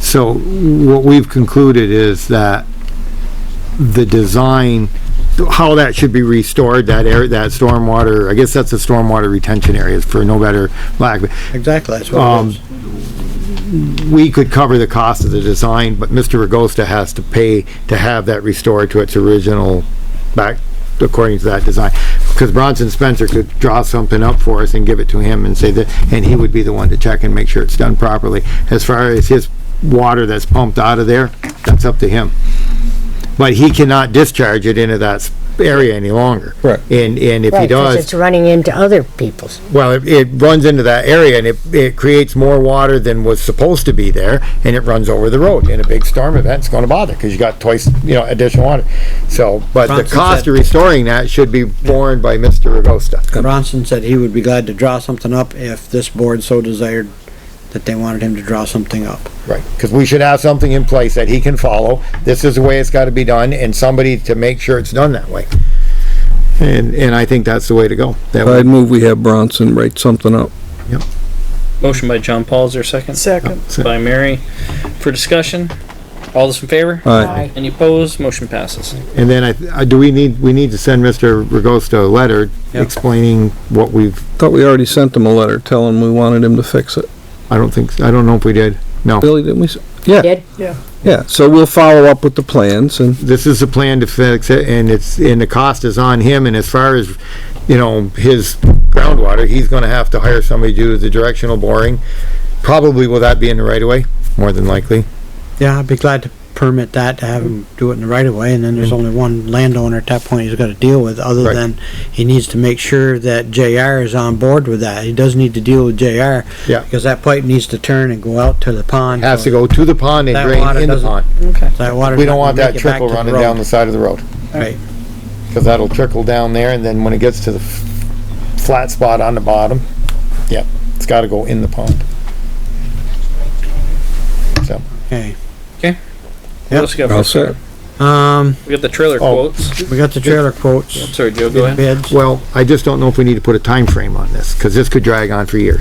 So what we've concluded is that the design, how that should be restored, that air, that stormwater, I guess that's the stormwater retention areas for no better lack. of- Exactly, that's what it Um, is. We could cover the cost of the design, but Mr. Regosta has to pay to have that restored to its original back, according to that design. Because Bronson Spencer could draw something up for us and give it to him and say that, and he would be the one to check and make sure it's done properly. As far as his water that's pumped out of there, that's up to him. But he cannot discharge it into that s- area any longer. Right. And, and if he Right, 'cause does. it's running into other people's. Well, it, it runs into that area and it, it creates more water than was supposed to be there and it runs over the road. In a big storm event, it's gonna bother because you got twice, you know, additional water. So, but the Francis cost said- of restoring that should be borne by Mr. Agosta. Bronson said he would be glad to draw something up if this board so desired that they wanted him to draw something up. Right, because we should have something in place that he can follow. This is the way it's gotta be done and somebody to make sure it's done that way. And, and I think that's the way to go. That I'd would- move we have Bronson write something up. Motion by John Paul, is there a second? Second. By Mary. For discussion, all those in favor? Aye. Any opposed? Motion passes. And then I, I, do we need, we need to send Mr. Agosta a letter Yep. explaining what we've, Thought we already sent him a letter telling we wanted him to fix it. I don't think, I don't know if we did. No. Billy, didn't we? s- Yeah, Did? yeah. So we'll follow up with the plans and this is the plan to fix it, and it's, and the cost is on him, and as far as, you know, his groundwater, he's gonna have to hire somebody to do the directional boring. Probably will that be in the right of way, more than likely. Yeah, I'd be glad to permit that, to have him do it in the right of way, and then there's only one landowner at that point he's gotta deal with, other Right. than he needs to make sure that JR is on board with that. He does need to deal with JR. Yeah. Because that pipe needs to turn and go out to the pond. Has to go to the pond and That drain water in the doesn't- pond. Okay. That water. We don't want that trickle running down the side of the road, Right, cause that'll trickle down there, and then when it gets to the f- flat spot on the bottom, yeah, it's gotta go in the pond. So, okay. What else we got? I'll for- set. Um, We got the trailer Oh. quotes. we got the trailer quotes, Sorry, Joe, go ahead. bids. well, I just don't know if we need to put a time frame on this, cause this could drag on for years.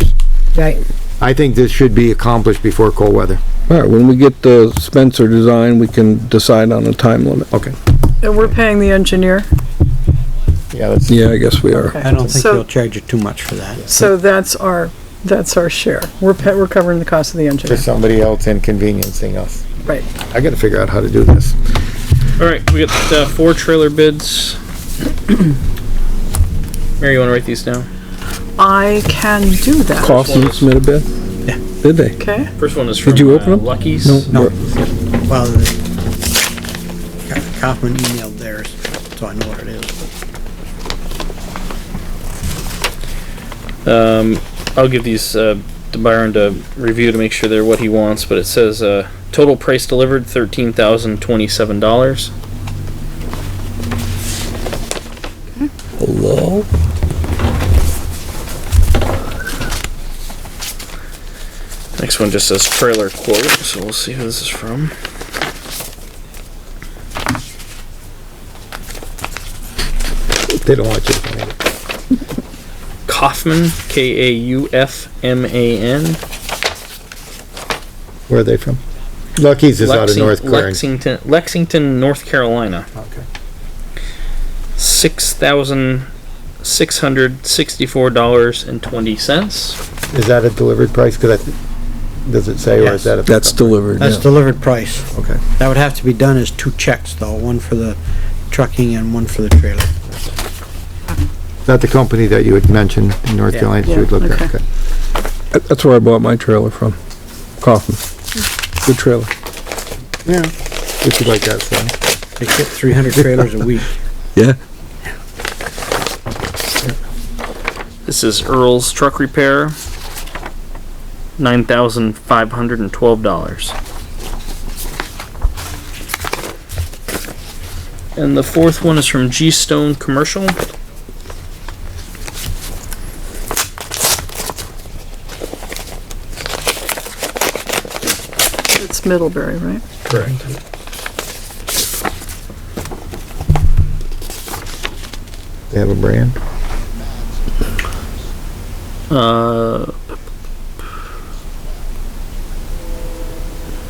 Right. I think this should be accomplished before cold weather. All right, when we get the Spencer design, we can decide on a time limit. Okay. And we're paying the engineer, Yeah, that's, Yeah, I guess we are. I don't think So- they'll charge you too much for that. so that's our, that's our share. We're, pa- we're covering the cost of the engineer. just somebody else inconveniencing us. Right. I gotta figure out how to do this. All right, we got, uh, four trailer bids. Mary, you wanna write these down? I can do that, Cost them submit a bid? Yeah. Did they? okay? First one is from Did you uh, open 'em? Lucky's. No. Well, the- Kaufman emailed theirs, so I know what it is. Um, I'll give these, uh, to Byron to review to make sure they're what he wants, but it says, uh, total price delivered thirteen thousand twenty-seven dollars. Hello? Next one just says trailer quote, so we'll see who this is from. They don't want you to find it. Kaufman, K A U F M A N. Where are they from? Lucky's is out of Lexing- North Clarendon. Lexington, Lexington, North Carolina. Okay. Six thousand six hundred sixty-four dollars and twenty cents. Is that a delivered price? Cause I, th- does it say, or is Yes. that a? That's delivered, That's yeah. delivered price. Okay. That would have to be done as two checks though, one for the trucking and one for the trailer. Is that the company that you had mentioned in North Yeah. Carolina that you had Yeah, looked at? okay. Okay. That- That's where I bought my trailer from. Coffin. Good trailer. If you like that, so. They ship three hundred trailers a week. Yeah. This is Earl's Truck Repair. Nine thousand five hundred and twelve dollars. And the fourth one is from G Stone Commercial. It's Middlebury, right? Correct. They have a brand? Uh,